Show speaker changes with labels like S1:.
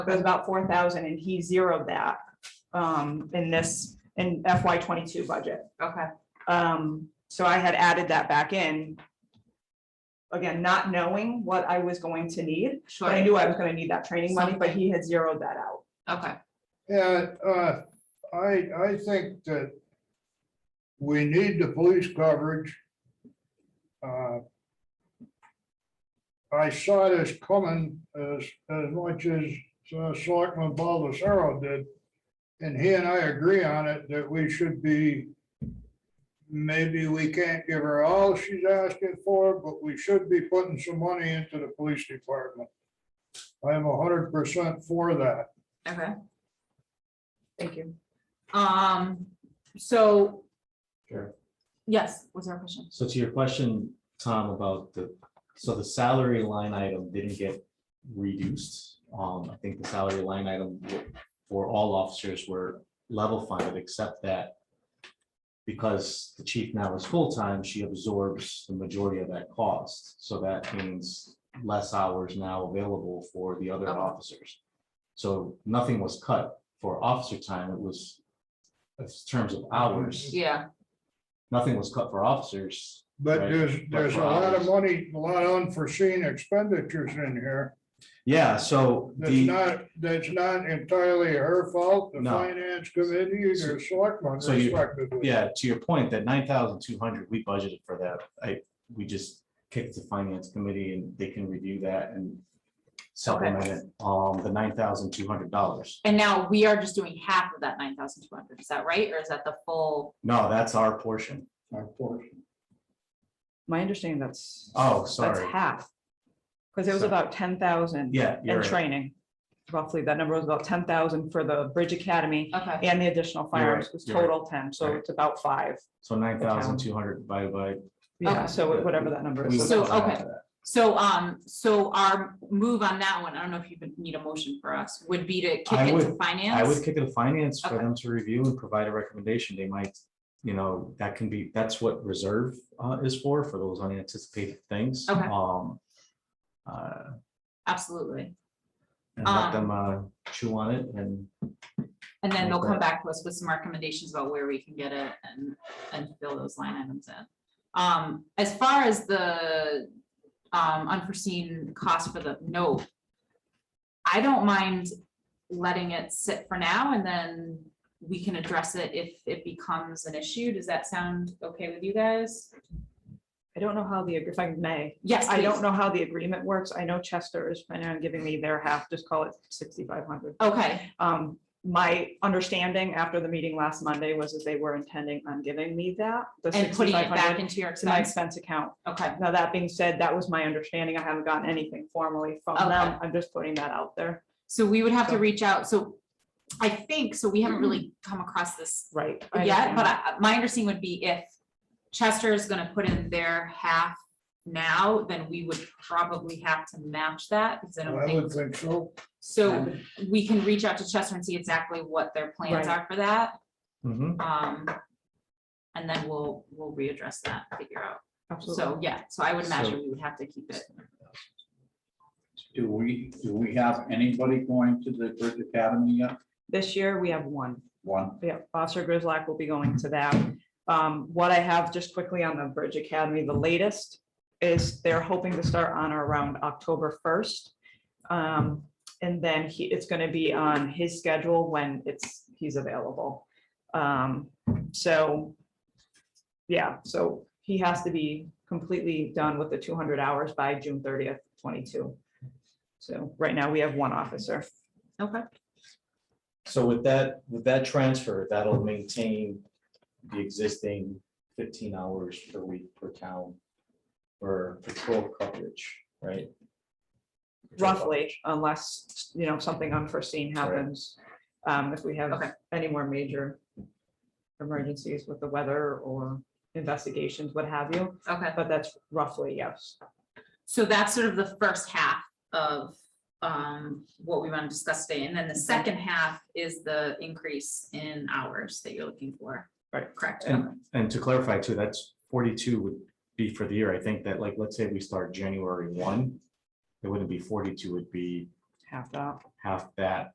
S1: It was about four thousand and he zeroed that um in this, in FY twenty-two budget.
S2: Okay,
S1: Um, so I had added that back in. Again, not knowing what I was going to need,
S2: sure.
S1: but I knew I was gonna need that training money, but he had zeroed that out.
S2: Okay,
S3: Yeah, uh, I, I think that we need the police coverage. Uh, I saw this coming as, as much as uh, Selectman Baldessaro did. And he and I agree on it that we should be, maybe we can't give her all she's asking for, but we should be putting some money into the police department. I am hundred percent for that.
S2: okay.
S1: Thank you.
S2: Um, so.
S4: Sure.
S2: Yes, was there a question?
S4: So to your question, Tom, about the, so the salary line item didn't get reduced. Um, I think the salary line item for all officers were level funded, except that because the chief now is full-time, she absorbs the majority of that cost. So that means less hours now available for the other
S2: Okay.
S4: officers. So nothing was cut for officer time. It was, in terms of hours,
S2: Yeah,
S4: nothing was cut for officers.
S3: But
S4: Right,
S3: there's, there's a
S4: for
S3: lot of
S4: hours.
S3: money, a lot of unforeseen expenditures in here.
S4: Yeah, so
S3: That's
S4: the,
S3: not, that's not entirely her fault, the
S4: No.
S3: finance committee
S4: So-
S3: or selectmen
S4: so you-
S3: respectively.
S4: yeah, to your point, that nine thousand two hundred, we budgeted for that. I, we just kicked the finance committee and they can review that and supplement it, um, the nine thousand two hundred dollars.
S2: and now we are just doing half of that nine thousand two hundred, is that right, or is that the full?
S4: No, that's our portion.
S3: Our portion.
S1: My understanding that's.
S4: Oh,
S1: That's
S4: sorry.
S1: half. Because it was
S4: So-
S1: about ten thousand.
S4: Yeah, you're
S1: And
S4: right.
S1: training, roughly, that number was about ten thousand for the Bridge Academy
S2: Okay,
S1: and the additional firearms
S4: right,
S1: was
S4: you're right.
S1: total ten, so
S4: Right.
S1: it's about five.
S4: So nine thousand two hundred divided by.
S1: Yeah,
S2: Okay.
S1: so whatever that number
S4: we
S1: is.
S2: So,
S4: went down
S2: okay.
S4: to that.
S2: so, um, so our move on that one, I don't know if you would need a motion for us, would be to kick
S4: I
S2: it to
S4: would-
S2: finance?
S4: I would kick it to finance for
S2: Okay.
S4: them to review and provide a recommendation. They might, you know, that can be, that's what reserve uh is for, for those unanticipated things.
S2: Okay.
S4: Um. Uh,
S2: Absolutely,
S4: and let them uh, chew on it and
S2: and then they'll
S4: Okay.
S2: come back to us with some recommendations about where we can get it and, and fill those line items in. Um, as far as the, um, unforeseen cost for the note. I don't mind letting it sit for now and then we can address it if it becomes an issue. Does that sound okay with you guys?
S1: I don't know how the, if I may,
S2: Yes,
S1: I don't
S2: please.
S1: know how the agreement works. I know Chester is planning on giving me their half, just call it sixty-five hundred.
S2: Okay,
S1: Um, my understanding after the meeting last Monday was that they were intending on giving me that, the
S2: and putting
S1: sixty-five
S2: it back
S1: hundred
S2: into your
S1: to my
S2: expense.
S1: expense account.
S2: Okay,
S1: Now, that being said, that was my understanding. I haven't gotten anything formally from
S2: Okay.
S1: them. I'm just putting that out there.
S2: so we would have to
S1: So- Mm-hmm.
S2: reach out. So I think, so we haven't really come across this
S1: Right. I
S2: Yeah,
S1: understand
S2: but
S1: that.
S2: I- my understanding would be if Chester is gonna put in their half now, then we would probably have to match that, because I don't
S3: I would
S2: think,
S3: think so.
S2: so we can reach out to Chester and see exactly what their plans
S1: Right.
S2: are for that.
S4: Mhm.
S2: Um, and then we'll, we'll readdress that, figure out.
S1: Absolutely.
S2: So, yeah, so I would imagine
S4: So-
S2: we would have to keep it.
S5: Do we, do we have anybody going to the Bridge Academy yet?
S1: This year, we have one.
S5: One,
S1: Yeah, Officer Grizzlack will be going to that. Um, what I have just quickly on the Bridge Academy, the latest is they're hoping to start on or around October first. Um, and then he, it's gonna be on his schedule when it's, he's available. Um, so, yeah, so he has to be completely done with the two hundred hours by June thirtieth, twenty-two. So right now, we have one officer.
S2: Okay.
S4: So with that, with that transfer, that'll maintain the existing fifteen hours per week per town for patrol coverage, right? Patrol
S1: roughly, unless, you know, something unforeseen
S4: Right.
S1: happens. Um, if we
S2: Okay.
S1: have any more major emergencies with the weather or investigations, what have you,
S2: Okay,
S1: but that's roughly, yes.
S2: so that's sort of the first half of, um, what we want to discuss today, and then the second half is the increase in hours that you're looking for.
S1: Right.
S2: Correct.
S4: And- And to clarify too, that's forty-two would be for the year. I think that like, let's say we start January one, it wouldn't be forty-two, it'd be
S1: half that.
S4: half that